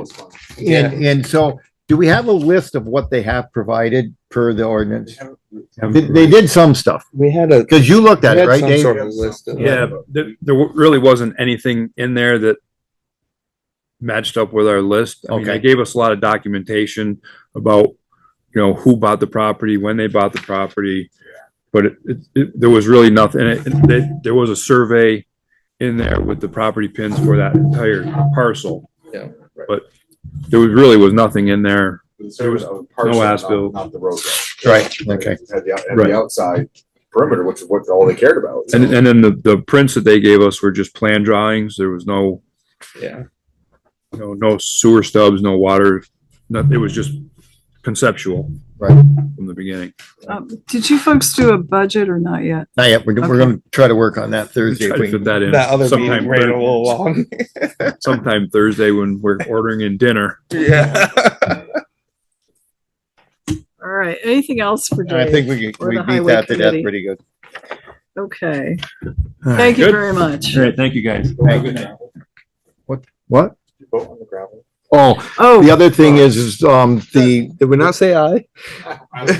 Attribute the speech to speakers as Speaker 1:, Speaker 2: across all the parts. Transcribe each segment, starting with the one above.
Speaker 1: was fun.
Speaker 2: And, and so, do we have a list of what they have provided per the ordinance? They, they did some stuff,
Speaker 3: We had a.
Speaker 2: because you looked at
Speaker 3: we
Speaker 2: it,
Speaker 3: had
Speaker 2: right,
Speaker 3: some
Speaker 2: Dave?
Speaker 3: sort of list of-
Speaker 4: Yeah, but there, there wa- really wasn't anything in there that matched up with our list. I mean, they
Speaker 2: Okay.
Speaker 4: gave us a lot of documentation about, you know, who bought the property, when they bought the property. But it, it, it- there was really nothing, and it- and they- there was a survey in there with the property pins for that entire parcel.
Speaker 3: Yeah,
Speaker 1: right.
Speaker 4: But there was, really was nothing in there. There was no as-built.
Speaker 1: Not the roadway.
Speaker 2: Right, okay.
Speaker 1: It Had the, out- had
Speaker 4: Right.
Speaker 1: the outside perimeter, which is what all they cared about.
Speaker 4: And, and then the, the prints that they gave us were just plan drawings. There was no,
Speaker 3: Yeah.
Speaker 4: you know, no sewer stubs, no water, nothing, it was just conceptual.
Speaker 2: Right.
Speaker 4: From the beginning.
Speaker 5: Um, Did you folks do a budget or not yet?
Speaker 2: Not yet, we're, we're gonna try to work on that
Speaker 4: We
Speaker 2: Thursday. if
Speaker 4: tried
Speaker 2: we
Speaker 4: to fit that in.
Speaker 3: That other
Speaker 4: sometime
Speaker 3: meeting ran a
Speaker 4: Thur-
Speaker 3: little long.
Speaker 4: Sometime Thursday when we're ordering in dinner.
Speaker 3: Yeah.
Speaker 5: All right, anything else for
Speaker 2: can. I
Speaker 5: Dave?
Speaker 2: think we, could-
Speaker 5: Or
Speaker 2: we
Speaker 5: the
Speaker 2: beat
Speaker 5: highway
Speaker 2: that to death
Speaker 5: committee.
Speaker 2: pretty good.
Speaker 5: Okay, thank you
Speaker 4: Good.
Speaker 5: very much.
Speaker 4: All right, thank you guys.
Speaker 2: Thank you. What?
Speaker 1: You Vote on the gravel.
Speaker 2: Oh, the
Speaker 5: Oh,
Speaker 2: other thing is, is, um, the,
Speaker 3: Did we not say aye?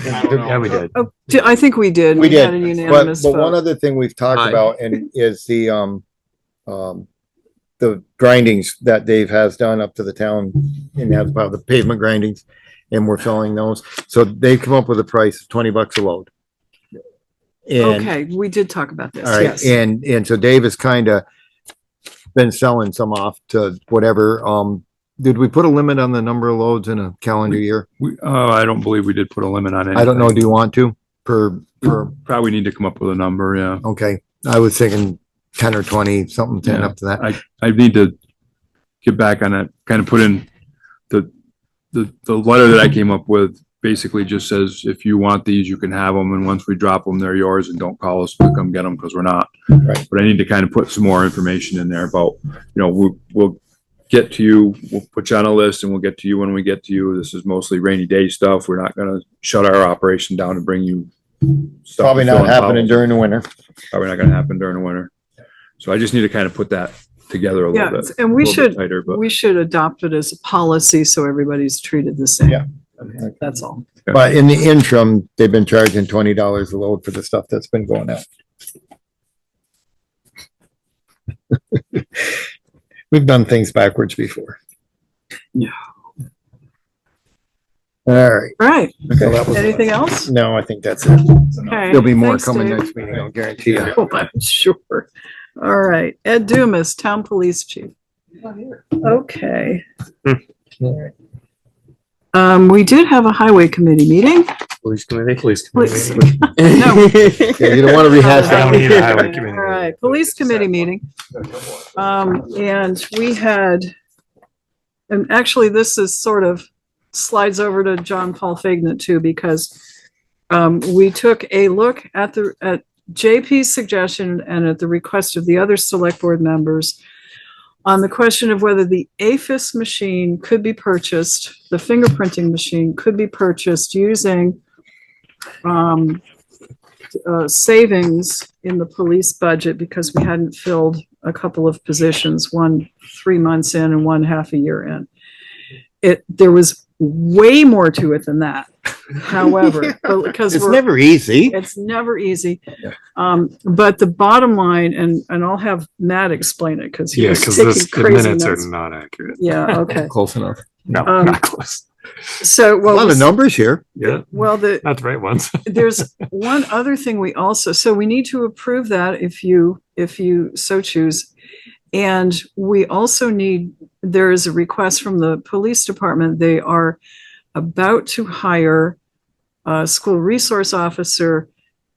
Speaker 1: Yeah, we did.
Speaker 5: oh, di- I think we did.
Speaker 2: We
Speaker 5: had
Speaker 2: did,
Speaker 5: a
Speaker 2: but,
Speaker 5: unanimous
Speaker 2: but one
Speaker 5: vote.
Speaker 2: other thing we've talked
Speaker 3: Aye.
Speaker 2: about and is the, um, um, the grindings that Dave has done up to the town and that's about the pavement grindings. And we're selling those. So they've come up with a price of twenty bucks a load. And
Speaker 5: Okay, we did talk about this,
Speaker 2: All right,
Speaker 5: yes.
Speaker 2: and, and so Dave has kind of been selling some off to whatever, um, did we put a limit on the number of loads in a calendar year?
Speaker 4: We, oh, I don't believe we did put a limit on it.
Speaker 2: I don't know, do you want to, per, per,
Speaker 4: Probably need to come up with a number, yeah.
Speaker 2: okay, I was thinking ten or twenty, something ten up to that.
Speaker 4: I need to get back on it, kind of put in the, the, the letter that I came up with basically just says, if you want these, you can have them, and once we drop them, they're yours, and don't call us to come get them, because we're not.
Speaker 2: Right.
Speaker 4: But I need to kind of put some more information in there about, you know, we'll, we'll get to you, we'll put you on a list, and we'll get to you when we get to you. This is mostly rainy day stuff. We're not gonna shut our operation down and bring you. stuff
Speaker 2: Probably
Speaker 4: to fill
Speaker 2: not
Speaker 4: in
Speaker 2: happening
Speaker 4: bottles.
Speaker 2: during the winter.
Speaker 4: Probably not gonna happen during the winter. So I just need to kind of put that together a little
Speaker 5: Yeah,
Speaker 4: bit.
Speaker 5: and we
Speaker 4: a little bit
Speaker 5: should,
Speaker 4: Tighter, but.
Speaker 5: we should adopt it as a policy so everybody's treated the same.
Speaker 2: Yeah.
Speaker 5: That's all.
Speaker 2: But in the interim, they've been charging twenty dollars a load for the stuff that's been going out. We've done things backwards before.
Speaker 5: Yeah.
Speaker 2: All right.
Speaker 5: All right,
Speaker 2: so that was-
Speaker 5: anything else?
Speaker 2: No, I think that's it.
Speaker 5: Okay,
Speaker 2: There'll be more
Speaker 5: thanks,
Speaker 2: coming
Speaker 5: Dave.
Speaker 2: next meeting, I'll guarantee you.
Speaker 5: Oh, I'm sure. All right, Ed Dumas, Town Police Chief. Okay.
Speaker 3: Hmm.
Speaker 5: Um, we did have a Highway Committee meeting.
Speaker 3: Police committee. Police
Speaker 5: Police-
Speaker 2: Yeah, You don't want to rehash
Speaker 3: don't
Speaker 2: that.
Speaker 3: need a Highway Committee
Speaker 5: All right, Police Committee meeting, um, and we had, and actually, this is sort of slides over to John Paul Fagnan too, because um, we took a look at the, at JP's suggestion and at the request of the other select board members on the question of whether the AFIS machine could be purchased, the fingerprinting machine could be purchased using um, uh, savings in the police budget because we hadn't filled a couple of positions, one three months in and one half a year in. It, there was way more to it than that, however, because
Speaker 2: It's
Speaker 5: we're
Speaker 2: never easy.
Speaker 5: it's never easy.
Speaker 2: Yeah.
Speaker 5: Um, but the bottom line, and, and I'll have Matt explain it, cause he
Speaker 6: Yeah,
Speaker 5: was
Speaker 6: because
Speaker 5: taking
Speaker 6: this, the
Speaker 5: crazy
Speaker 6: minutes are
Speaker 5: notes.
Speaker 6: not accurate.
Speaker 5: Yeah, okay.
Speaker 2: Close enough.
Speaker 6: No,
Speaker 5: Um,
Speaker 6: not close.
Speaker 5: So,
Speaker 2: A lot of
Speaker 5: well,
Speaker 2: numbers here.
Speaker 6: Yeah,
Speaker 5: well, the,
Speaker 6: not the right ones.
Speaker 5: there's one other thing we also, so we need to approve that if you, if you so choose. And we also need, there is a request from the police department. They are about to hire a school resource officer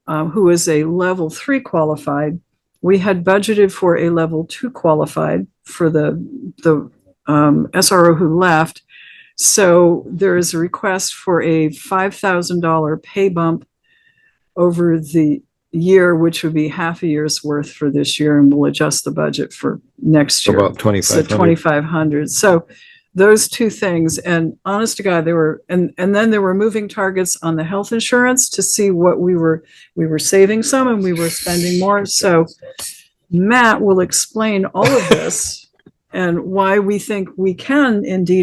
Speaker 5: um, who is a level three qualified. We had budgeted for a level two qualified for the, the um, SRO who left. So there is a request for a five thousand dollar pay bump over the year, which would be half a year's worth for this year, and we'll adjust the budget for next year.
Speaker 2: About twenty-five
Speaker 5: So
Speaker 2: hundred.
Speaker 5: twenty-five hundred. So those two things, and honest to God, they were, and, and then there were moving targets on the health insurance to see what we were, we were saving some and we were spending more. So Matt will explain all of this and why we think we can indeed